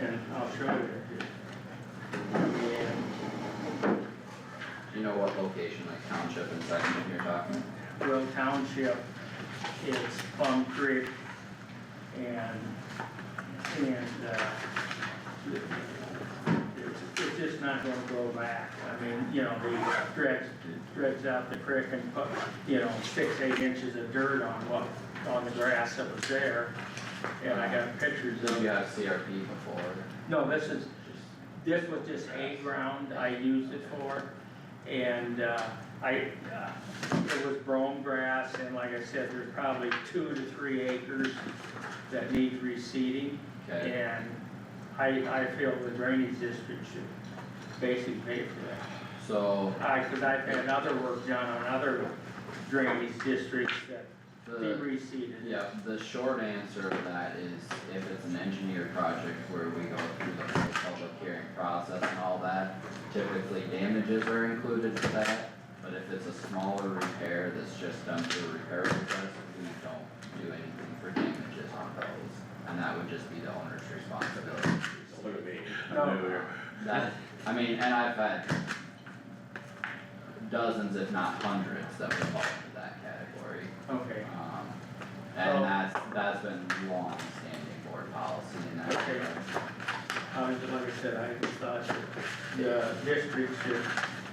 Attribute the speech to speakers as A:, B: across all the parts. A: and I'll show you.
B: Do you know what location, like township and section you're talking?
A: Will Township is Plum Creek and, and, uh, it's, it's just not gonna go back. I mean, you know, they dredge, dredge out the creek and put, you know, six, eight inches of dirt on what, on the grass that was there. And I got pictures
B: Did
A: of
B: you
A: it.
B: have CRP before?
A: No, this is, this was just hay ground I used it for, and, uh, I, uh, it was brome grass, and like I said, there's probably two to three acres that need reseeding,
B: Okay,
A: and I, I feel the drainage district should basically pay for that.
B: so
A: I, cause I've had other work done on other drainage districts that they
B: the,
A: reseeded.
B: yeah, the short answer to that is if it's an engineered project where we go through the whole public hearing process and all that, typically damages are included for that, but if it's a smaller repair that's just done through a repair request, we don't do anything for damages on those. And that would just be the owner's responsibility.
C: Look at me,
A: No.
C: I'm new here.
B: That, I mean, and I've had dozens, if not hundreds, that would fall into that category.
A: Okay,
B: Um,
A: Oh.
B: and that's, that's been long-standing board policy in that.
A: Okay.
B: regard.
A: I was, like I said, I just thought that the district should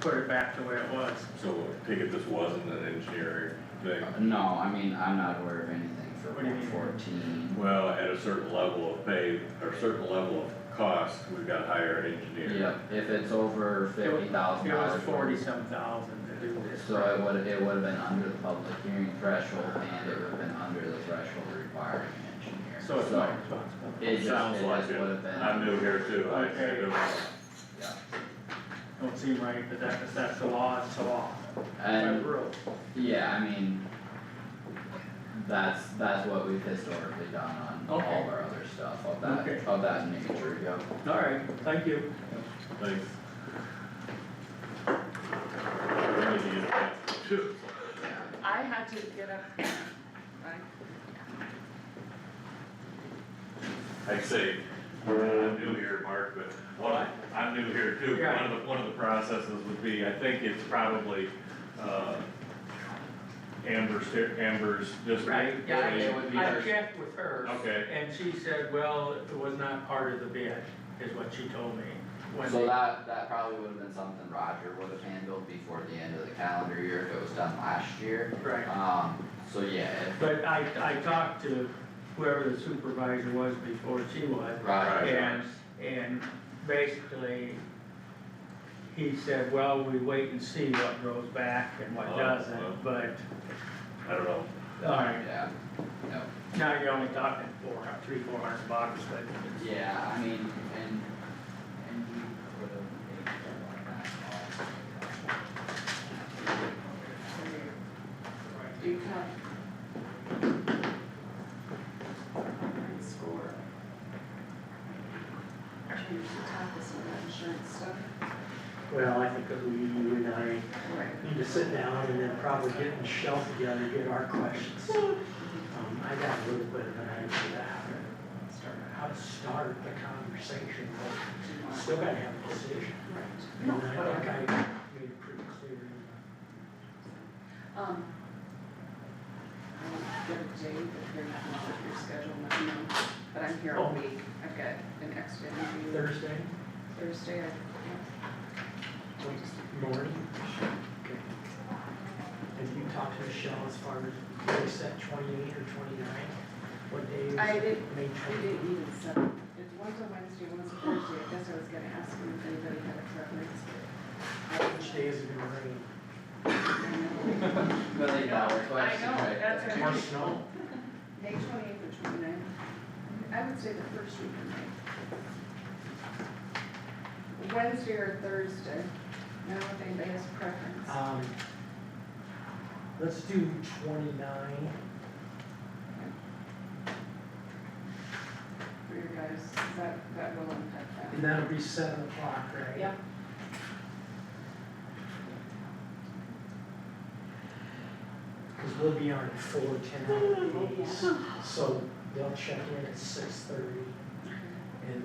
A: put it back to where it was.
C: So I take it this wasn't an engineering thing.
B: No, I mean, I'm not aware of anything for
A: What do you
B: one
A: mean?
B: fourteen.
C: Well, at a certain level of pay, or certain level of cost, we've got to hire an engineer.
B: Yep, if it's over fifty thousand
A: It
B: dollars.
A: was forty-some thousand to do this.
B: So it would, it would have been under the public hearing threshold and it would have been under the threshold requiring an engineer.
A: So it's my responsibility.
B: It just, it
C: Sounds like
B: just
C: it.
B: would have been.
C: I'm new here too. I-
A: Okay.
C: I don't-
B: Yeah.
A: Don't seem right, but that, if that's the law, it's the law. My
B: And,
A: rule.
B: yeah, I mean, that's, that's what we've historically done on all
A: Okay.
B: of our other stuff of that,
A: Okay.
B: of that nature, yeah.
A: All right, thank you.
C: Thanks. I need to get back to-
D: I had to get up, right?
C: I say, I'm new here, Mark, but one, I'm new here too.
A: Yeah.
C: One of the, one of the processes would be, I think it's probably, uh, Amber's, Amber's district.
A: Yeah,
B: It would be
A: I, I
B: ours.
A: checked with her.
C: Okay.
A: And she said, well, it was not part of the bid, is what she told me. when
B: So
A: they-
B: that, that probably would have been something Roger would have handled before the end of the calendar year if it was done last year.
A: Right.
B: Um, so yeah,
A: But I, I talked to whoever the supervisor was before she was,
B: if Roger.
A: And, and basically, he said, well, we wait and see what goes back and what
C: Oh, oh.
A: doesn't, but,
C: I don't know.
A: alright,
B: Yeah, no.
A: now you're only talking four, three, four hundred bucks, but.
B: Yeah, I mean, and, and we would have made that
D: You can. Alright, Score. Change the topic on that insurance stuff.
E: Well, I think that we, you and I
D: Right.
E: need to sit down and then probably get in shelf together, get our questions.
D: Hmm.
E: Um, I got a little bit of an idea of how to start the conversation,
D: Do
E: but
D: you
E: we
D: want-
E: still gotta have a decision.
D: Right.
E: And
D: No,
E: I think
D: whatever.
E: I made it pretty clear.
D: Um. I'll get a date if you're not on your schedule, let me know, but I'm here all
E: Oh.
D: week. I've got an extra interview
E: Thursday
D: Thursday. I-
E: morning. Okay. Have you talked to Michelle as far as, they set twenty-eight or twenty-nine? What day is it?
D: I did-
E: May
D: We
E: twenty?
D: didn't even set, it's one's a Wednesday, one's a Thursday, I guess I was gonna ask you if anybody had a preference.
E: Which day is it gonna rain?
D: I know.
B: small. Million dollar question,
D: know,
B: right?
D: that's
B: there.
D: right.
E: More snow?
D: May twenty-eighth or twenty-ninth, I would say the first week of May. Wednesday or Thursday, now if anybody has a preference.
E: Um, let's do twenty-nine,
D: For your guys, that, that will impact
E: and
D: that.
E: that'll be seven o'clock, right?
D: Yep.
E: Cause we'll be on at four ten, so they'll check in at six thirty, and